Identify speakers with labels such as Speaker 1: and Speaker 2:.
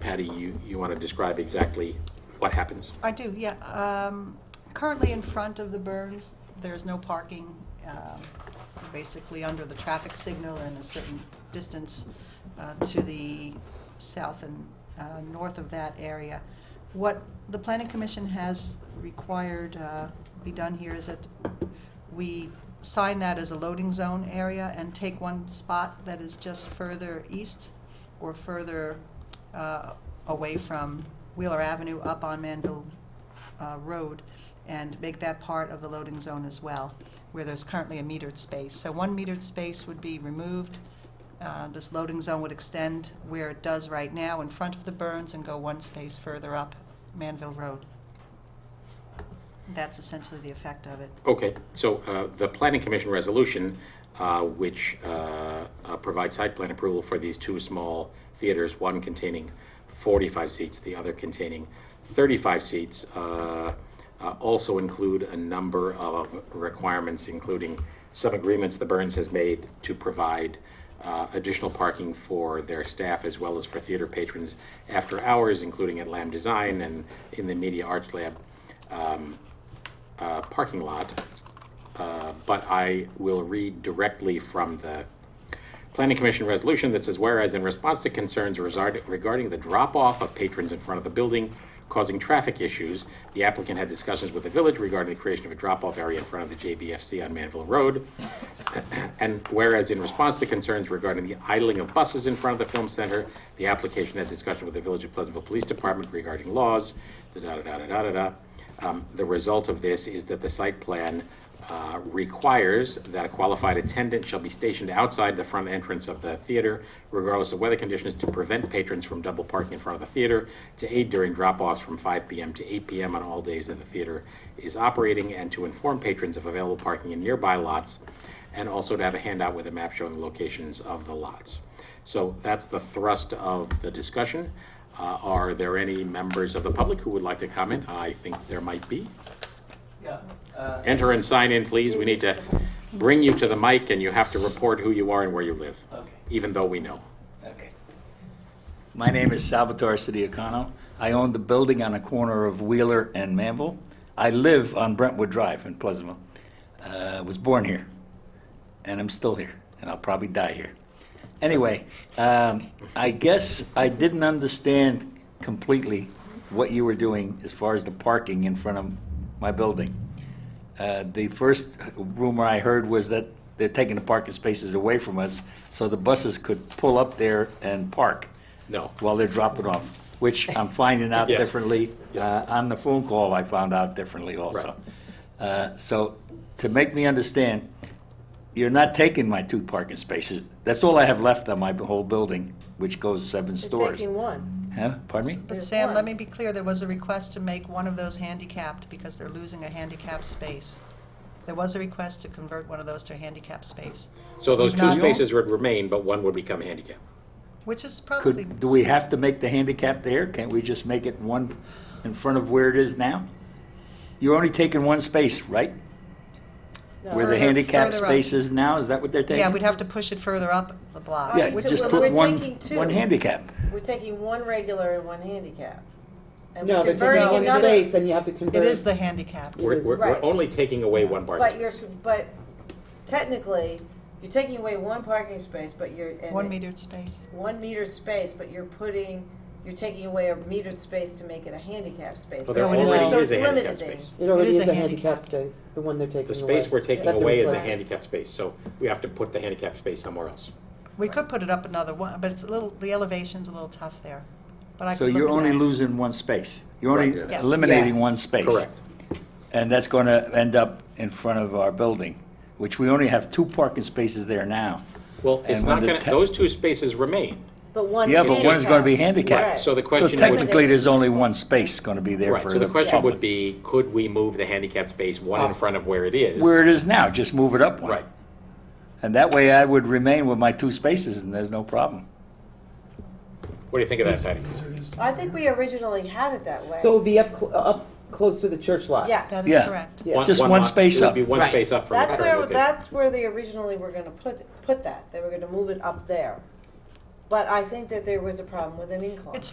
Speaker 1: Patty, you, you want to describe exactly what happens?
Speaker 2: I do, yeah. Um, Currently in front of the Burns, there's no parking, um, basically under the traffic signal and a certain distance uh, to the south and uh, north of that area. What the Planning Commission has required uh, be done here is that we sign that as a loading zone area and take one spot that is just further east or further uh, away from Wheeler Avenue up on Manville uh, Road and make that part of the loading zone as well, where there's currently a metered space. So one metered space would be removed. Uh, This loading zone would extend where it does right now in front of the Burns and go one space further up Manville Road. That's essentially the effect of it.
Speaker 1: Okay, so uh, the Planning Commission resolution, uh, which uh, uh, provides site plan approval for these two small theaters, one containing 45 seats, the other containing 35 seats, uh, uh, also include a number of requirements, including some agreements the Burns has made to provide uh, additional parking for their staff as well as for theater patrons after hours, including at Lamb Design and in the Media Arts Lab uh, parking lot, uh, but I will read directly from the Planning Commission resolution that says, whereas in response to concerns resard- regarding the drop-off of patrons in front of the building causing traffic issues, the applicant had discussions with the village regarding the creation of a drop-off area in front of the JBFC on Manville Road. And whereas in response to concerns regarding the idling of buses in front of the film center, the application had discussion with the Village of Pleasantville Police Department regarding laws, da da da da da da da. Um, The result of this is that the site plan uh, requires that a qualified attendant shall be stationed outside the front entrance of the theater regardless of weather conditions to prevent patrons from double parking in front of the theater, to aid during drop-offs from 5 p.m. to 8 p.m. on all days that the theater is operating, and to inform patrons of available parking in nearby lots and also to have a handout with a map showing the locations of the lots. So that's the thrust of the discussion. Uh, Are there any members of the public who would like to comment? I think there might be.
Speaker 3: Yeah, uh,
Speaker 1: Enter and sign in, please. We need to bring you to the mic, and you have to report who you are and where you live,
Speaker 3: Okay.
Speaker 1: even though we know.
Speaker 3: okay. My name is Salvatore Sidiacano. I own the building on the corner of Wheeler and Manville. I live on Brentwood Drive in Pleasantville. Uh, was born here, and I'm still here, and I'll probably die here. Anyway, um, I guess I didn't understand completely what you were doing as far as the parking in front of my building. Uh, The first rumor I heard was that they're taking the parking spaces away from us, so the buses could pull up there and park
Speaker 1: No.
Speaker 3: while they're dropping off, which I'm finding out
Speaker 1: Yes.
Speaker 3: differently. Uh, On the phone call, I found out differently also. Uh, So to make me understand, you're not taking my two parking spaces. That's all I have left on my whole building, which goes seven
Speaker 4: You're
Speaker 3: stories.
Speaker 4: taking one.
Speaker 3: Huh? Pardon me?
Speaker 2: But
Speaker 4: There's
Speaker 2: Sam, let
Speaker 4: one.
Speaker 2: me be clear, there was a request to make one of those handicapped because they're losing a handicapped space. There was a request to convert one of those to a handicapped space,
Speaker 1: So those two
Speaker 2: Not-
Speaker 1: spaces would remain, but one would become handicap.
Speaker 2: which is probably,
Speaker 3: Could, do we have to make the handicap there? Can't we just make it one in front of where it is now? You're only taking one space, right? Where the
Speaker 2: Further-
Speaker 3: handicap
Speaker 2: further up.
Speaker 3: space is now, is that what they're taking?
Speaker 2: yeah, we'd have to push it further up the block.
Speaker 3: Yeah,
Speaker 4: Alright, so
Speaker 3: just
Speaker 4: we're-
Speaker 3: put
Speaker 4: we're
Speaker 3: one,
Speaker 4: taking two.
Speaker 3: one handicap.
Speaker 4: We're taking one regular and one handicap. And
Speaker 5: No,
Speaker 4: we're
Speaker 5: they're
Speaker 4: converting
Speaker 5: taking one
Speaker 4: another-
Speaker 5: space and you have to convert.
Speaker 2: It is the handicapped.
Speaker 1: We're, we're, we're
Speaker 4: Right.
Speaker 1: only taking away one parking
Speaker 4: But you're,
Speaker 1: space.
Speaker 4: but technically, you're taking away one parking space, but you're. and
Speaker 2: One metered space.
Speaker 4: One metered space, but you're putting, you're taking away a metered space to make it a handicap space.
Speaker 1: Well, there
Speaker 2: No, it is a-
Speaker 1: already
Speaker 4: So
Speaker 1: is a
Speaker 4: it's
Speaker 1: handicap
Speaker 4: limiting.
Speaker 1: space.
Speaker 5: It already
Speaker 2: It is
Speaker 5: is
Speaker 2: a
Speaker 5: a handicap
Speaker 2: handicap.
Speaker 5: space, the one they're taking
Speaker 1: The
Speaker 5: away.
Speaker 1: space we're taking
Speaker 5: Is that the
Speaker 1: away is a
Speaker 5: request?
Speaker 1: handicap space, so we have to put the handicap space somewhere else.
Speaker 2: We could put it up another one, but it's a little, the elevation's a little tough there. But I
Speaker 3: So
Speaker 2: could look
Speaker 3: you're
Speaker 2: at
Speaker 3: only
Speaker 2: that.
Speaker 3: losing one space. You're only
Speaker 1: Right,
Speaker 2: yeah. Yes.
Speaker 3: eliminating
Speaker 5: Yes.
Speaker 3: one space.
Speaker 1: Correct.
Speaker 3: And that's going to end up in front of our building, which we only have two parking spaces there now.
Speaker 1: Well, it's
Speaker 3: And when
Speaker 1: not
Speaker 3: the
Speaker 1: gonna,
Speaker 3: ta-
Speaker 1: those two spaces remain.
Speaker 4: But one.
Speaker 3: Yeah, but one's going to be
Speaker 1: Right,
Speaker 3: handicapped.
Speaker 1: so the
Speaker 3: So
Speaker 1: question would-
Speaker 3: technically, there's only one space going to be there
Speaker 1: Right,
Speaker 3: for
Speaker 1: so the question
Speaker 3: public.
Speaker 1: would be, could we move the handicap space one in front of where it is?
Speaker 3: where it is now, just move it up one.
Speaker 1: Right.
Speaker 3: And that way I would remain with my two spaces and there's no problem.
Speaker 1: What do you think of that, Patty?
Speaker 4: I think we originally had it that way.
Speaker 5: So it would be up, cl- up close to the church lot.
Speaker 4: Yeah.
Speaker 2: That
Speaker 3: Yeah.
Speaker 2: is correct.
Speaker 5: Yeah.
Speaker 3: Just one
Speaker 1: lot-
Speaker 3: space
Speaker 1: It would be
Speaker 3: up.
Speaker 1: one
Speaker 5: Right.
Speaker 1: space up from the
Speaker 4: That's
Speaker 1: current
Speaker 4: where,
Speaker 1: location.
Speaker 4: that's where they originally were gonna put, put that, they were gonna move it up there. But I think that there was a problem with an incline.
Speaker 2: It's